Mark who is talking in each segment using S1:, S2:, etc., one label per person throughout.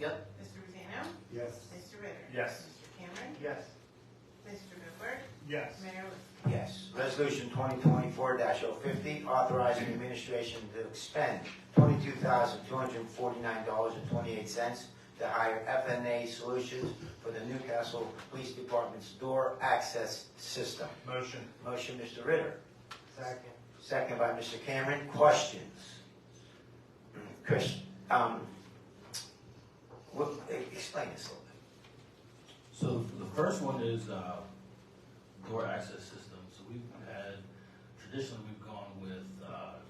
S1: Yep.
S2: Mr. Rosano?
S3: Yes.
S2: Mr. Ritter?
S4: Yes.
S2: Mr. Cameron?
S4: Yes.
S2: Mr. Booker?
S4: Yes.
S2: Mayor Liscan?
S1: Yes. Resolution 2024-050, authorizing the administration to expend $22,249.28 to hire FNA Solutions for the Newcastle Police Department's door access system.
S4: Motion.
S1: Motion, Mr. Ritter.
S4: Second.
S1: Second by Mr. Cameron. Questions? Chris, um, what, explain this a little bit.
S5: So the first one is uh, door access system. So we've had, traditionally, we've gone with uh,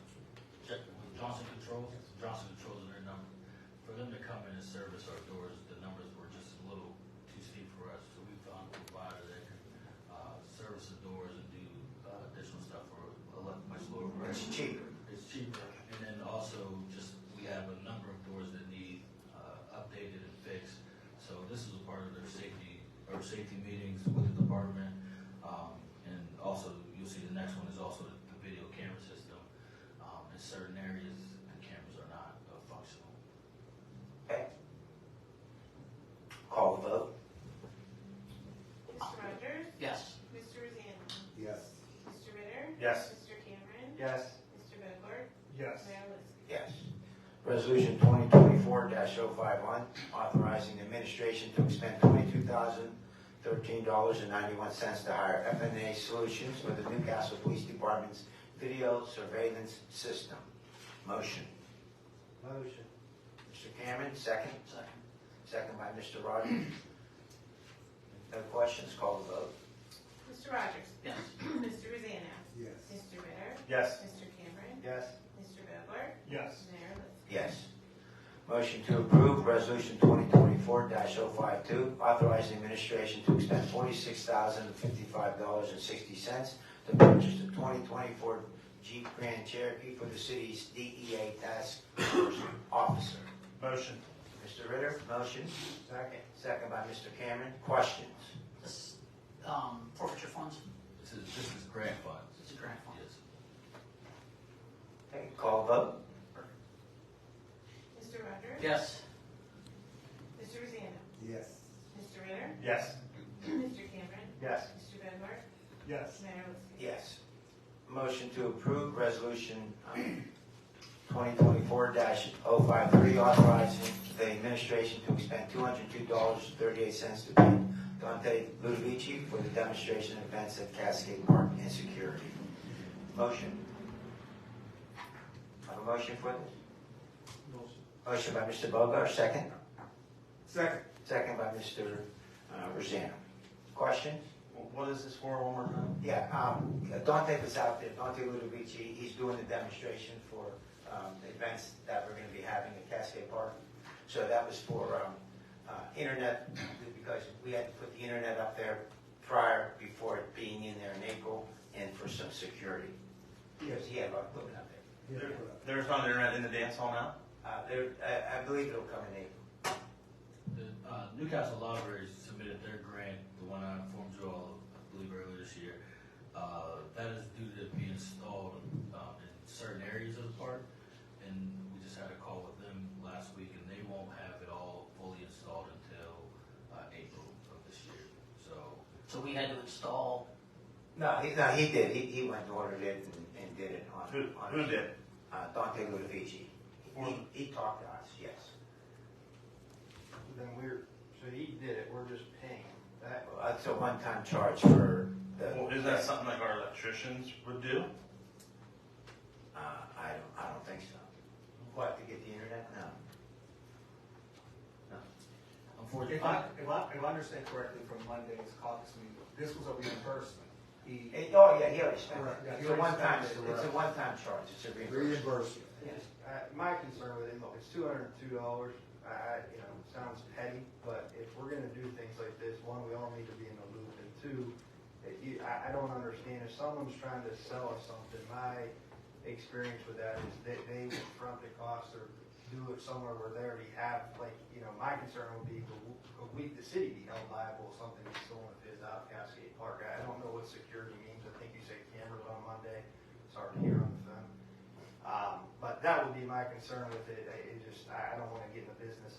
S5: J- with Johnson Controls. Johnson Controls are their number. For them to come in and service our doors, the numbers were just a little too steep for us. So we found a provider that could uh, service the doors and do uh, additional stuff for a lot- much lower price.
S1: It's cheaper.
S5: It's cheaper, and then also just, we have a number of doors that need uh, updated and fixed. So this is a part of their safety, or safety meetings with the department. Um, And also, you'll see the next one is also the video camera system. Um, In certain areas, the cameras are not uh, functional.
S1: Call the vote.
S2: Mr. Rogers?
S5: Yes.
S2: Mr. Rosano?
S3: Yes.
S2: Mr. Ritter?
S4: Yes.
S2: Mr. Cameron?
S4: Yes.
S2: Mr. Booker?
S4: Yes.
S2: Mayor Liscan?
S1: Yes. Resolution 2024-051, authorizing the administration to expend $22,013.91 to hire FNA Solutions for the Newcastle Police Department's video surveillance system. Motion.
S3: Motion.
S1: Mr. Cameron, second.
S5: Second.
S1: Second by Mr. Rogers. No questions, call the vote.
S2: Mr. Rogers?
S5: Yes.
S2: Mr. Rosano?
S3: Yes.
S2: Mr. Ritter?
S4: Yes.
S2: Mr. Cameron?
S4: Yes.
S2: Mr. Booker?
S4: Yes.
S2: Mayor Liscan?
S1: Yes. Motion to approve Resolution 2024-052, authorizing administration to expend $46,055.60 to purchase the 2024 Jeep Grand Cherokee for the city's DEA task force officer.
S4: Motion.
S1: Mr. Ritter, motion. Second. Second by Mr. Cameron. Questions?
S6: This, um, forfeiture funds,
S5: This is, this is grant funds.
S6: it's a grant fund.
S5: Yes.
S1: Okay, call vote.
S2: Mr. Rogers?
S6: Yes,
S2: Mr. Rosano?
S3: Yes.
S2: Mr. Ritter?
S4: Yes.
S2: Mr. Cameron?
S4: Yes.
S2: Mr. Booker?
S4: Yes.
S2: Mayor Liscan?
S1: Yes. Motion to approve Resolution um, 2024-053, authorizing the administration to expend $202.38 to pay Dante Ludovici for the demonstration events at Cascade Park and security. Motion. Have a motion for this? Motion by Mr. Bogar, second.
S3: Second.
S1: Second by Mr. uh, Rosano. Question?
S4: What is this for, one more time?
S1: Yeah, um, Dante was out there, Dante Ludovici, he's doing the demonstration for, um, the events that we're gonna be having at Cascade Park. So that was for, um, uh, internet, because we had to put the internet up there prior, before it being in there in April, and for some security. Because he had a lot of equipment up there.
S3: Yeah.
S4: There's not internet in the dance hall now?
S1: Uh, there, I, I believe it'll come in April.
S5: The uh, Newcastle Library submitted their grant, the one I informed you all, I believe earlier this year. Uh, That is due to be installed um, in certain areas of the park. And we just had a call with them last week and they won't have it all fully installed until uh, April of this year. So,
S6: so we had to install,
S1: No, he, no, he did, he, he went and ordered it and, and did it on.
S4: Who,
S1: on-
S4: who did?
S1: Uh, Dante Ludovici.
S4: For-
S1: He, he talked to us, yes.
S7: Then we're, so he did it, we're just paying that.
S1: Well, That's uh, a one-time charge for the.
S4: Well, is that something like our electricians would do?
S1: Uh, I don't, I don't think so. What, to get the internet? No.
S5: unfortunately,
S7: If I, if I, if I understand correctly from Monday's caucus meeting, this was a reimbursement. He,
S1: It- oh, yeah, he already spent
S7: Correct,
S1: it.
S7: yeah,
S1: It's
S7: he
S1: a
S7: already
S1: one-time, it's
S7: spent it,
S1: a
S7: correct.
S1: one-time charge, it's a reimbursement.
S3: Reimbursement.
S7: uh, my concern with it, look, it's two hundred and two dollars, I, I, you know, it sounds petty, but if we're gonna do things like this, one, we all need to be in the loop, and two, it- you, I, I don't understand, if someone's trying to sell us something, my experience with that is they, they will front the cost or do it somewhere where they already have, like, you know, my concern would be, could w- could we, the city be held liable if something is stolen if it's out of Cascade Park? I I don't know what security means, I think you said cameras on Monday, it's hard to hear on the phone. Um, but that would be my concern with it, I, it just, I, I don't wanna get in the business of